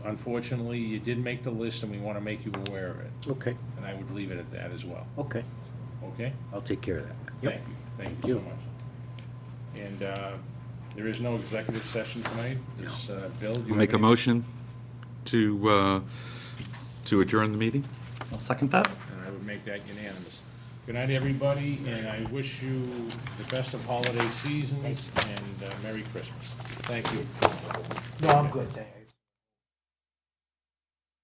Unfortunately, you did make the list, and we want to make you aware of it, Okay, and I would leave it at that as well, okay. okay? I'll take care of that. Thank you, thank you so much. And uh, there is no executive session tonight, is, uh, Bill? do you I'll make a have any- motion to, uh, to adjourn the meeting? I'll second that. And I would make that unanimous. Good night, everybody, and I wish you the best of holiday seasons and uh, Merry Christmas. Thank you. No, I'm good, thank you.